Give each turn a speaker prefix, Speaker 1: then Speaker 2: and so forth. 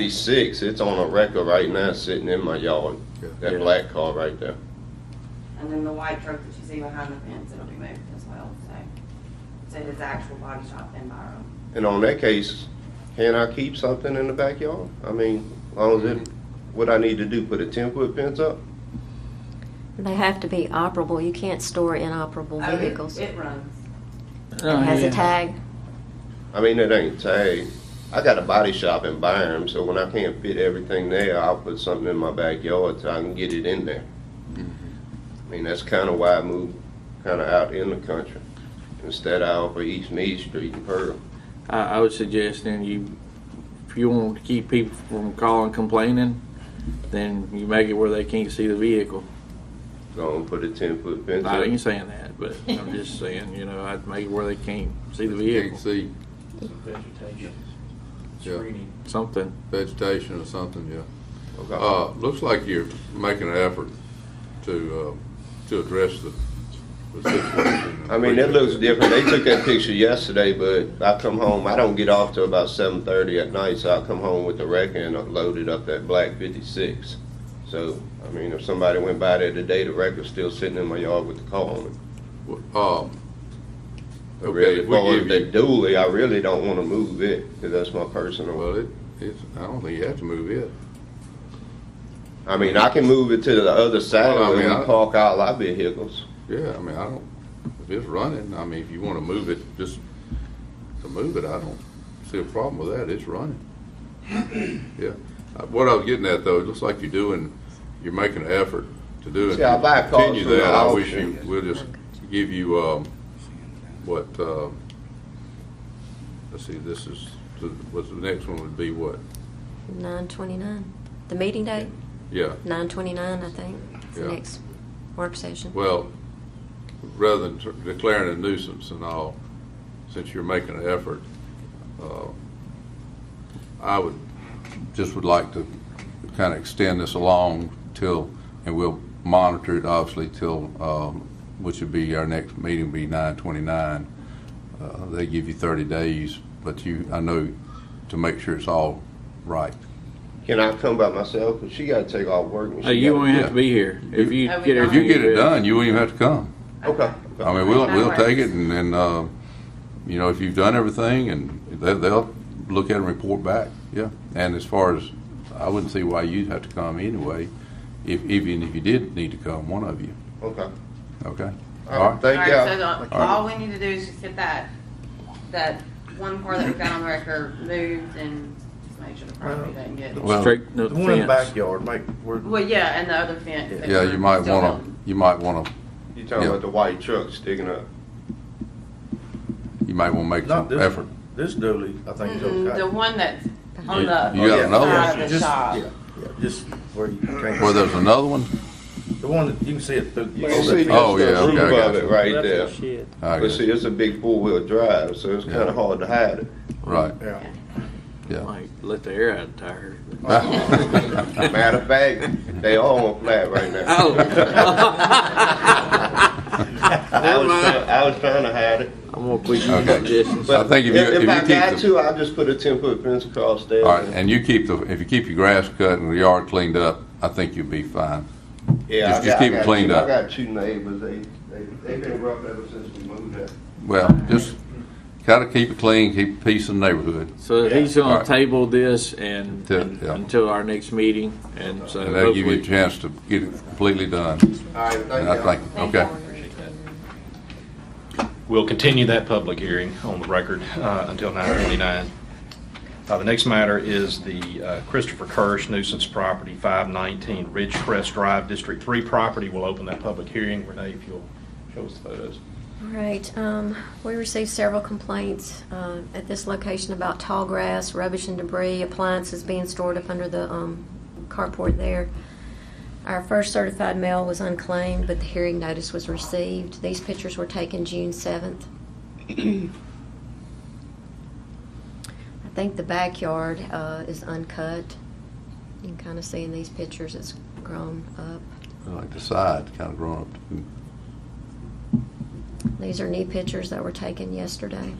Speaker 1: Fifty-six, it's on a record right now, sitting in my yard,
Speaker 2: Yeah.
Speaker 1: that black car right there.
Speaker 3: And then the white truck that you see behind the fence, it'll be moved as well, so. So his actual body shop in Byram.
Speaker 1: And on that case, can I keep something in the backyard? I mean, as long as it, what I need to do, put a ten-foot fence up?
Speaker 4: They have to be operable. You can't store inoperable
Speaker 3: Oh, it-
Speaker 4: vehicles.
Speaker 3: It runs.
Speaker 2: Oh,
Speaker 4: It has a tag.
Speaker 1: I mean, it ain't tagged. I got a body shop in Byram, so when I can't fit everything there, I'll put something in my backyard so I can get it in there. I mean, that's kinda why I moved kinda out in the country, instead of out for East Mead Street and Pearl.
Speaker 5: I, I would suggest then you, if you want to keep people from calling complaining, then you make it where they can't see the vehicle.
Speaker 1: So I'm gonna put a ten-foot fence up.
Speaker 5: I ain't saying that, but I'm just saying, you know, I'd make it where they can't see the
Speaker 2: Can't
Speaker 5: vehicle,
Speaker 2: see
Speaker 6: Some vegetation,
Speaker 2: Yeah.
Speaker 6: screening.
Speaker 5: something.
Speaker 2: vegetation or something, yeah.
Speaker 1: Okay.
Speaker 2: Uh, looks like you're making an effort to, uh, to address the, the situation.
Speaker 1: I mean, it looks different. They took that picture yesterday, but I come home, I don't get off till about seven thirty at night, so I come home with the wreck and loaded up that black fifty-six. So, I mean, if somebody went by there today, the wreck was still sitting in my yard with the car on it.
Speaker 2: Um,
Speaker 1: But
Speaker 2: Okay,
Speaker 1: really,
Speaker 2: we
Speaker 1: for
Speaker 2: give
Speaker 1: the
Speaker 2: you-
Speaker 1: dually, I really don't wanna move it, cause that's my personal.
Speaker 2: well, it, it's, I don't think you have to move it.
Speaker 1: I mean, I can move it to the other side
Speaker 2: Well, I
Speaker 1: where
Speaker 2: mean,
Speaker 1: we
Speaker 2: I-
Speaker 1: park all our vehicles.
Speaker 2: Yeah, I mean, I don't, if it's running, I mean, if you wanna move it, just to move it, I don't see a problem with that, it's running. Yeah, Uh, what I was getting at though, it looks like you're doing, you're making an effort to do it.
Speaker 1: See, I buy cars
Speaker 2: Continue
Speaker 1: from the
Speaker 2: that, I wish you,
Speaker 1: auction.
Speaker 2: we'll just give you, um, what, um, let's see, this is, the- what's the next one would be what?
Speaker 4: 929. The meeting date?
Speaker 2: Yeah,
Speaker 4: 929, I think. It's the
Speaker 2: Yeah.
Speaker 4: next work session.
Speaker 2: Well, rather than t- declaring a nuisance and all, since you're making an effort, uh, I would, just would like to kind of extend this along till, and we'll monitor it obviously till, um, which would be, our next meeting would be nine twenty-nine. Uh, They give you thirty days, but you, I know, to make sure it's all right.
Speaker 1: Can I come by myself? Cause she gotta take off work and she
Speaker 5: Hey, you
Speaker 1: gotta-
Speaker 5: won't have to be here if you
Speaker 3: Oh, we
Speaker 5: get
Speaker 3: don't.
Speaker 2: If you
Speaker 5: everything.
Speaker 2: get it
Speaker 5: addressed.
Speaker 2: done, you won't even have to come.
Speaker 1: Okay.
Speaker 2: I mean, we'll,
Speaker 3: That
Speaker 2: we'll take it
Speaker 3: works.
Speaker 2: and, and, uh, you know, if you've done everything and they, they'll look at it and report back, yeah. And as far as, I wouldn't see why you'd have to come anyway, if, even if you did need to come, one of you,
Speaker 1: Okay.
Speaker 2: okay? All
Speaker 1: Alright,
Speaker 2: right.
Speaker 1: thank you.
Speaker 3: All right, so the- all we need to do is just get that, that one car that we got on the record moved and just make sure the property doesn't get.
Speaker 2: Well-
Speaker 5: Straight no
Speaker 6: The one in the
Speaker 5: fence.
Speaker 6: backyard, make, where,
Speaker 3: Well, yeah, and the other fence. that
Speaker 2: Yeah, you might
Speaker 3: still
Speaker 2: wanna,
Speaker 3: building.
Speaker 2: you might wanna,
Speaker 1: You talking
Speaker 2: Yeah.
Speaker 1: about the white truck sticking up?
Speaker 2: you might wanna make
Speaker 6: Not
Speaker 2: some
Speaker 6: this
Speaker 2: effort.
Speaker 6: this dooley, I think is
Speaker 3: Mm-mm,
Speaker 6: okay.
Speaker 3: The one that's on
Speaker 2: You-
Speaker 3: the.
Speaker 2: you got
Speaker 3: other
Speaker 2: another one?
Speaker 3: side of the
Speaker 6: Just-
Speaker 3: shop.
Speaker 6: yeah, yeah, Just where you can't.
Speaker 2: Where there's another one?
Speaker 6: The one that you can see it through.
Speaker 1: You can see
Speaker 2: Oh, yeah,
Speaker 1: that's the
Speaker 2: okay,
Speaker 1: roof
Speaker 2: I got
Speaker 1: of it
Speaker 2: you.
Speaker 1: right there.
Speaker 2: I
Speaker 1: But
Speaker 2: guess,
Speaker 1: see, it's a big four-wheel drive, so it's kind
Speaker 2: Yeah.
Speaker 1: of hard to hide it.
Speaker 2: right,
Speaker 6: Yeah.
Speaker 2: yeah.
Speaker 5: Like, let the air out of the tire.
Speaker 1: Matter of fact, they all on flat right now.
Speaker 2: Oh.
Speaker 1: I was, try- I was trying to hide it.
Speaker 5: I'm gonna put you in
Speaker 2: Okay.
Speaker 5: suggestions.
Speaker 2: I think if you- if you
Speaker 1: I
Speaker 2: keep
Speaker 1: got
Speaker 2: the-
Speaker 1: to, I'll just put a ten-foot fence across there.
Speaker 2: All right, and you keep the, if you keep your grass cut and the yard cleaned up, I think you'll be fine.
Speaker 1: Yeah, I
Speaker 2: just- just
Speaker 1: got- I
Speaker 2: keep it
Speaker 1: got
Speaker 2: cleaned
Speaker 1: two-
Speaker 2: up.
Speaker 1: I got two neighbors, they, they, they've been rough ever since we moved there.
Speaker 2: Well, just gotta keep it clean, keep peace in the neighborhood.
Speaker 5: So he's
Speaker 2: All
Speaker 5: gonna
Speaker 2: right.
Speaker 5: table this and,
Speaker 2: Till-
Speaker 5: and-
Speaker 2: yeah.
Speaker 5: until our next meeting, and so
Speaker 2: And that'll give you a
Speaker 5: hopefully.
Speaker 2: chance to get it completely done.
Speaker 1: All right, thank
Speaker 2: And
Speaker 1: you.
Speaker 2: I think, okay.
Speaker 7: We'll continue that public hearing on the record uh, until 9:29. Uh, The next matter is the uh, Christopher Kirsch nuisance property, 519 Ridgecrest Drive, District 3 property. We'll open that public hearing. Renee, if you'll show us the photos.
Speaker 4: All right, um, we received several complaints, uh, at this location about tall grass, rubbish and debris, appliances being stored up under the, um, carport there. Our first certified mail was unclaimed, but the hearing notice was received. These pictures were taken June seventh. I think the backyard, uh, is uncut. You can kinda see in these pictures, it's grown up.
Speaker 2: Like the side, Hmm. kind of grown up.
Speaker 4: These are new pictures that were taken yesterday.